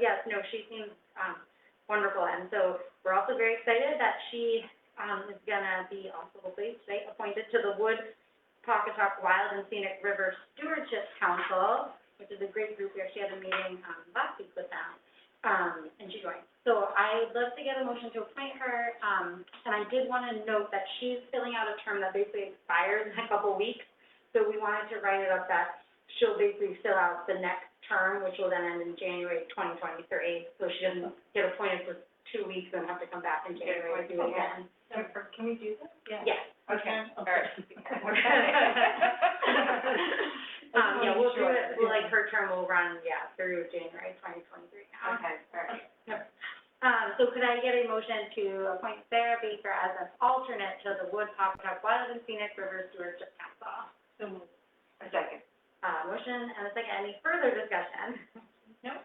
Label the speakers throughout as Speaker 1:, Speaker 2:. Speaker 1: yes, no, she seems, um, wonderful, and so we're also very excited that she, um, is gonna be also hopefully today appointed to the Wood Pocketuck Wild and Scenic River Stewardship Council, which is a great group here, she had a meeting, um, last week with them, um, and she joined. So I'd love to get a motion to appoint her, um, and I did wanna note that she's filling out a term that basically expires in a couple weeks, so we wanted to write it up that she'll basically fill out the next term, which will then end in January twenty twenty-three, so she doesn't get appointed for two weeks and have to come back in
Speaker 2: Yeah,
Speaker 1: January to do it
Speaker 2: okay.
Speaker 1: again.
Speaker 2: Jennifer, can we do this?
Speaker 1: Yes.
Speaker 2: Okay, all right.
Speaker 1: Um, yeah, we'll do it, well, like her term will run, yeah, through January twenty twenty-three now.
Speaker 2: Okay, all right.
Speaker 1: Um, so could I get a motion to appoint Sarah Baker as an alternate to the Wood Pocketuck Wild and Scenic River Stewardship Council?
Speaker 2: So moved. A second.
Speaker 1: Uh, motion and a second, any further discussion?
Speaker 2: No.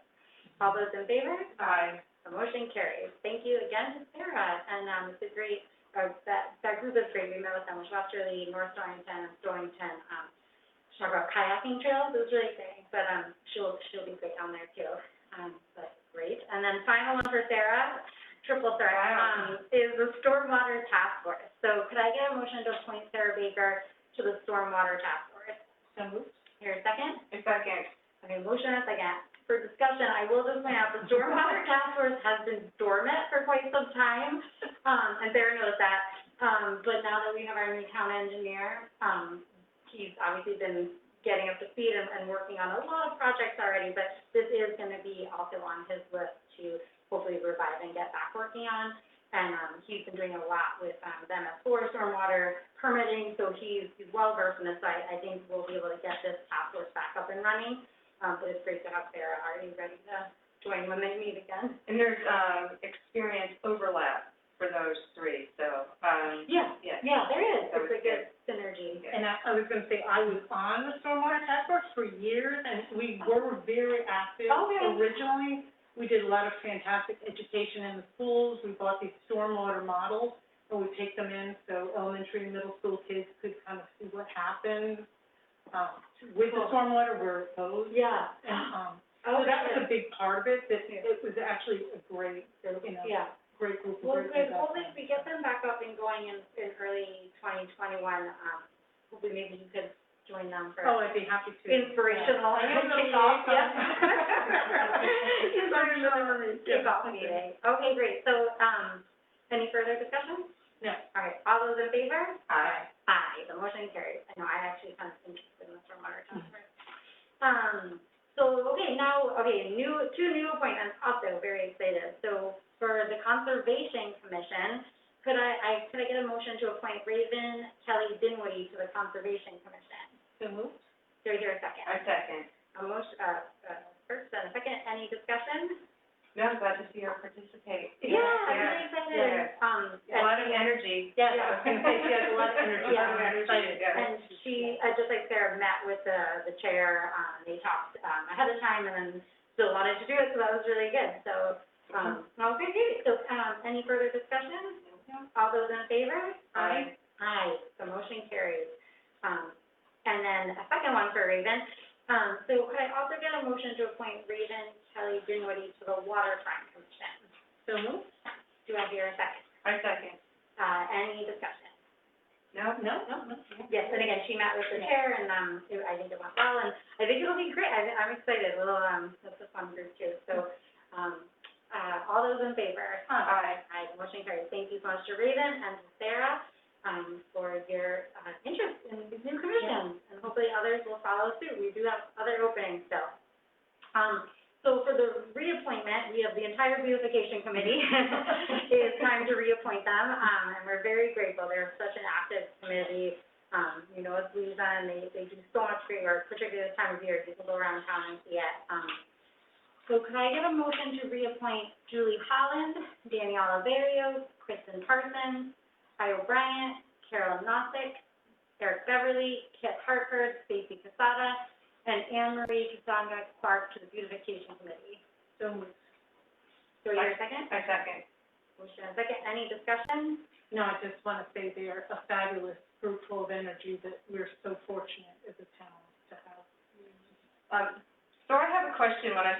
Speaker 1: All those in favor?
Speaker 2: Aye.
Speaker 1: The motion carries. Thank you again to Sarah, and, um, it's a great, uh, that, that group is great, we met with them, which Westerly, North Dorrington, and Dorrington, um, she talked about kayaking trails, it was really exciting, but, um, she'll, she'll be great down there too, um, but great. And then final one for Sarah, triple threat,
Speaker 2: Wow.
Speaker 1: um, is the Stormwater Task Force. So could I get a motion to appoint Sarah Baker to the Stormwater Task Force?
Speaker 2: So moved.
Speaker 1: Here, second?
Speaker 2: A second.
Speaker 1: Okay, motion and second. For discussion, I will just point out, the stormwater task force has been dormant for quite some time, um, and Sarah knows that. Um, but now that we have our new town engineer, um, he's obviously been getting up to speed and, and working on a lot of projects already, but this is gonna be also on his list to hopefully revive and get back working on. And, um, he's been doing a lot with, um, them at Florida Stormwater permitting, so he's, he's well versed in this, so I, I think we'll be able to get this task force back up and running. Um, but it's great to have Sarah already ready to join when they meet again.
Speaker 2: And there's, um, experience overlap for those three, so, um,
Speaker 1: Yeah,
Speaker 2: yeah.
Speaker 1: yeah, there is.
Speaker 2: That
Speaker 1: It's
Speaker 2: was
Speaker 1: a good synergy.
Speaker 2: Yeah.
Speaker 3: And I, I was gonna say, I was on the stormwater task force for years, and we were very active
Speaker 1: Oh, yeah.
Speaker 3: originally. We did a lot of fantastic education in the schools, we bought these stormwater models, and we take them in, so elementary and middle school kids could kind of see what happens. Um, with the
Speaker 1: Cool.
Speaker 3: stormwater, where it goes,
Speaker 1: Yeah.
Speaker 3: and, um,
Speaker 1: Oh,
Speaker 3: so that was a
Speaker 1: good.
Speaker 3: big part of it, that
Speaker 1: Yeah.
Speaker 3: it was actually a great, you know,
Speaker 1: Yeah.
Speaker 3: great group of.
Speaker 1: Well,
Speaker 3: great
Speaker 1: good.
Speaker 3: people.
Speaker 1: Hopefully, if we get them back up and going in, in early twenty twenty-one, um, hopefully maybe you could join them for
Speaker 3: Oh, I'd be happy to.
Speaker 1: inspirational
Speaker 3: Yeah.
Speaker 1: kickoff, yeah. Inspirational
Speaker 3: Yeah.
Speaker 1: kickoff meeting. Okay, great. So, um, any further discussion?
Speaker 3: No.
Speaker 1: All right, all those in favor?
Speaker 2: Aye.
Speaker 1: Aye, the motion carries. I know, I actually kind of interested in the stormwater task force. Um, so, okay, now, okay, new, two new appointments, also very excited. So for the Conservation Commission, could I, I, could I get a motion to appoint Raven Kelly Dinwiddie to the Conservation Commission?
Speaker 3: So moved.
Speaker 1: Do I hear a second?
Speaker 2: A second.
Speaker 1: A motion, uh, uh, first and a second, any discussion?
Speaker 2: No, I'm glad to see her participate.
Speaker 1: Yeah, I'm really excited,
Speaker 2: yeah.
Speaker 1: um.
Speaker 2: A
Speaker 1: and-
Speaker 2: lot of energy.
Speaker 3: Yeah,
Speaker 1: Yeah.
Speaker 3: I was gonna say, she has a lot of energy.
Speaker 1: Yeah.
Speaker 3: I'm excited.
Speaker 2: Yeah.
Speaker 1: And she, uh, just like Sarah, met with the, the chair, um, they talked, um, ahead of time and then still wanted to do it, so that was really good, so, um, okay, great. So, um, any further discussion? All those in favor?
Speaker 2: Aye.
Speaker 1: Aye, the motion carries. Um, and then a second one for Raven. Um, so could I also get a motion to appoint Raven Kelly Dinwiddie to the Waterfront Commission?
Speaker 3: So moved?
Speaker 1: Do I hear a second?
Speaker 2: A second.
Speaker 1: Uh, any discussion?
Speaker 2: No?
Speaker 3: No, no, no.
Speaker 1: Yes, and again, she met with the chair, and, um, it- I think it went well, and I think it'll be great, I, I'm excited, we'll, um, that's a fun group too, so, um, uh, all those in favor?
Speaker 2: Aye.
Speaker 1: Aye, the motion carries, thank you so much to Raven and to Sarah, um, for your, uh, interest in these new commissions, and hopefully others will follow suit, we do have other openings still. Um, so for the reappointment, we have the entire beautification committee, it's time to reappoint them, um, and we're very grateful, they're such an active committee, um, you know, it's Louisiana, and they, they do so much great work, particularly this time of year, you can go around town and see it, um. So could I get a motion to reappoint Julie Holland, Danielle Averio, Kristen Parsons, Kyle Bryant, Carol Nosick, Eric Beverly, Kit Hartford, Stacy Casada, and Anne Marie Casanga Clark to the beautification committee.
Speaker 3: So moved.
Speaker 1: Do I hear a second?
Speaker 2: A second.
Speaker 1: Motion and second, any discussion?
Speaker 3: No, I just wanna say they're a fabulous group full of energy that we're so fortunate as a town to have.
Speaker 2: Um, so I have a question when I